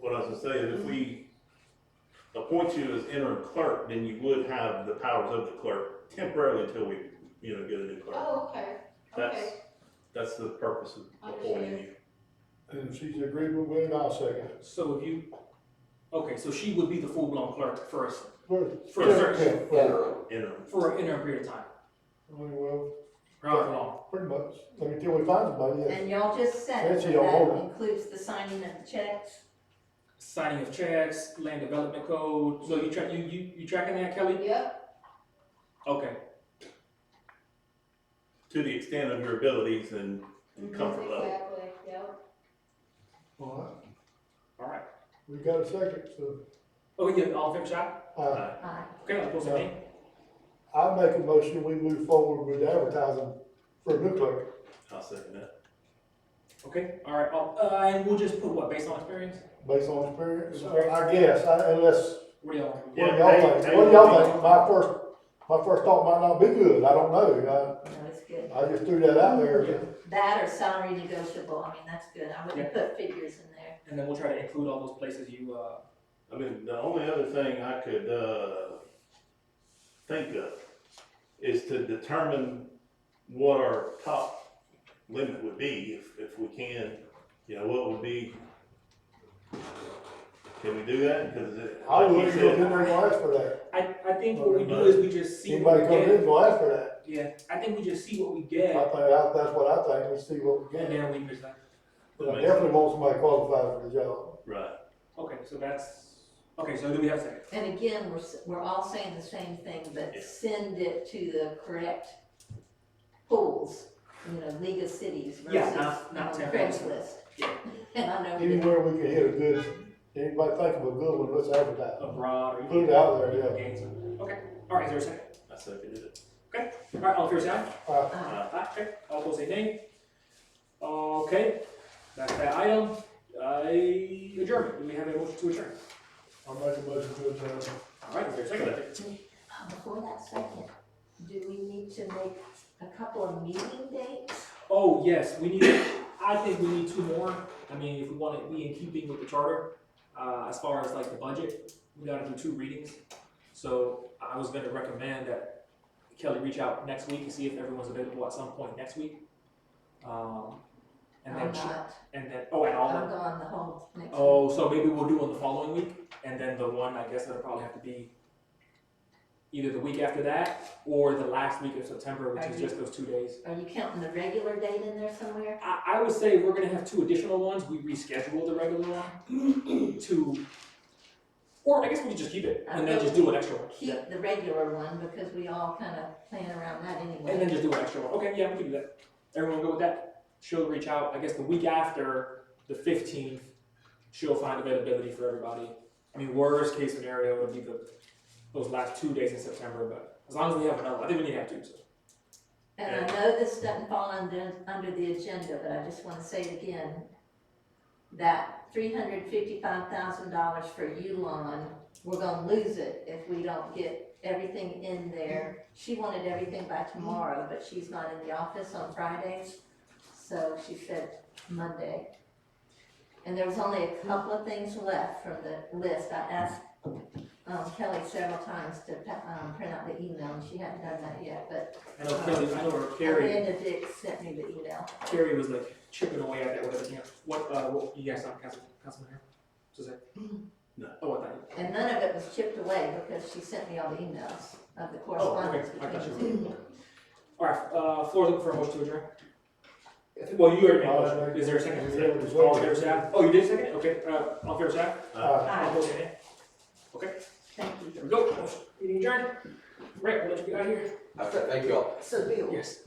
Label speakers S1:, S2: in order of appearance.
S1: What I was gonna say is if we appoint you as interim clerk, then you would have the powers of the clerk temporarily until we, you know, get a new clerk.
S2: Oh, okay,
S1: That's,
S2: okay,
S1: that's the purpose of appointing you.
S3: And if she's in agreement with it, I'll second.
S4: So if you, okay, so she would be the full-blown clerk first,
S3: First.
S4: For a
S3: Yeah,
S4: search.
S3: yeah.
S1: Interim.
S4: for an interim period of time,
S3: Well,
S4: however long.
S3: pretty much, I mean, till we find somebody, yes.
S5: And y'all just said
S3: That's
S5: that
S3: your
S5: that
S3: order.
S5: includes the signing of the checks.
S4: Signing of checks, land development code, so you track, you, you, you tracking that, Kelly?
S2: yep,
S4: Okay,
S1: To the extent of your abilities and and
S2: exactly,
S1: comfort level.
S2: yep.
S3: All right,
S4: all right.
S3: we got a second, so,
S4: Okay, yeah, all fair shot?
S3: uh,
S5: Aye.
S4: Okay, I'll post the name.
S3: I make a motion, we move forward with advertising for a new clerk.
S1: I'll second that.
S4: Okay, all right, all- uh, and we'll just put what, based on experience?
S3: Based on experience, or I guess, I- unless,
S4: What do y'all want?
S3: what do
S1: Yeah,
S3: y'all
S1: they-
S3: think?
S1: they
S3: What do y'all
S1: would be-
S3: think? My first, my first thought might not be good, I don't know,
S5: No, it's good.
S3: I, I just threw that out there.
S5: That or salary negotiable, I mean, that's good. I wouldn't put figures in there.
S4: And then we'll try to include all those places you, uh,
S1: I mean, the only other thing I could, uh, think of is to determine what our top limit would be, if, if we can, you know, what would be. Can we do that? Cause it,
S3: I
S1: like
S3: wouldn't
S1: you
S3: go in
S1: said,
S3: there and ask for that,
S4: I, I think what we do is we just see what
S3: anybody
S4: we
S3: come in,
S4: get.
S3: go ask for that.
S4: Yeah, I think we just see what we
S3: I
S4: get,
S3: think, I- that's what I think, we see what we
S4: and
S3: get,
S4: then we present.
S3: but I definitely want somebody qualified for the job.
S1: right,
S4: Okay, so that's, okay, so do we have a second?
S5: And again, we're, s- we're all saying the same thing,
S1: Yeah.
S5: but send it to the correct pools, you know, League of Cities
S4: Yeah,
S5: versus
S4: not- not
S5: um,
S4: temporary.
S5: Craigslist.
S4: Yeah.
S5: And I know. that-
S3: Anywhere we can hit a good, anybody think of a good one, let's advertise.
S4: Abroad or?
S3: Put it out there, yeah.
S4: Gains. Okay, all right, is there a second?
S1: I seconded it.
S4: All right, all fair side?
S3: Uh,
S5: Aye.
S4: Aye, okay, all opposed, say nay. Okay, that's that item. I adjourn. Do we have a motion to adjourn?
S3: I'll make a motion to adjourn.
S4: All right, is there a second?
S5: Uh, Before that second, do we need to make a couple of meeting dates?
S4: Oh, yes, we need, I think we need two more. I mean, if we want to be in keeping with the charter, uh, as far as like the budget, we gotta do two readings. So I was gonna recommend that Kelly reach out next week and see if everyone's available at some point next week. Um, and
S5: I'm
S4: then, she-
S5: not,
S4: and then, oh, and all.
S5: I'm gone the whole next week.
S4: Oh, so maybe we'll do one the following week, and then the one, I guess that'll probably have to be either the week after that, or the last week of September, which is
S5: Are
S4: just those two days.
S5: Are you counting the regular date in there somewhere?
S4: I, I would say we're gonna have two additional ones, we reschedule the regular one to, or I guess we could just keep it, and then just do an extra one. Yeah.
S5: Keep the regular one because we all kind of plan around that anyway.
S4: And then just do an extra one, okay, yeah, we can do that. Everyone go with that? She'll reach out, I guess the week after, the fifteenth, she'll find availability for everybody. I mean, worst case scenario would be the, those last two days in September, but as long as we have another, I think we need to have two, so.
S5: And I know this doesn't fall under, under the agenda, but I just wanna say it again, that three hundred fifty-five thousand dollars for Yulon, we're gonna lose it if we don't get everything in there. She wanted everything by tomorrow, but she's not in the office on Fridays, so she said Monday. And there was only a couple of things left from the list. I asked um, Kelly several times to, um, print out the email, and she hadn't done that yet, but
S4: I know Kelly, I know her, Carrie,
S5: Amanda Dick sent me the email.
S4: Carrie was like chipping away at that, whatever, you know, what, uh, what, you guys saw Council, Councilman Harris? Suzanne?
S1: No.
S4: Oh, I thought,
S5: And none of it was chipped away because she sent me all the emails of the correspondence
S4: Oh, I
S5: between
S4: got you.
S5: the two.
S4: alright, uh, floor's open for a motion to adjourn. Well, you already made a
S3: I'll
S4: motion,
S3: make-
S4: is there a second?
S3: Yeah, it was-
S4: All in favor, say aye. Oh, you did second, it? okay, uh, all in favor, say
S3: Uh,
S4: aye.
S5: Aye,
S4: All opposed, say nay.
S5: thank
S4: There
S5: you.
S4: we go. Meeting adjourned. Right, we'll let you get out of here.
S6: Okay, thank you all.
S5: So Bill.
S4: Yes.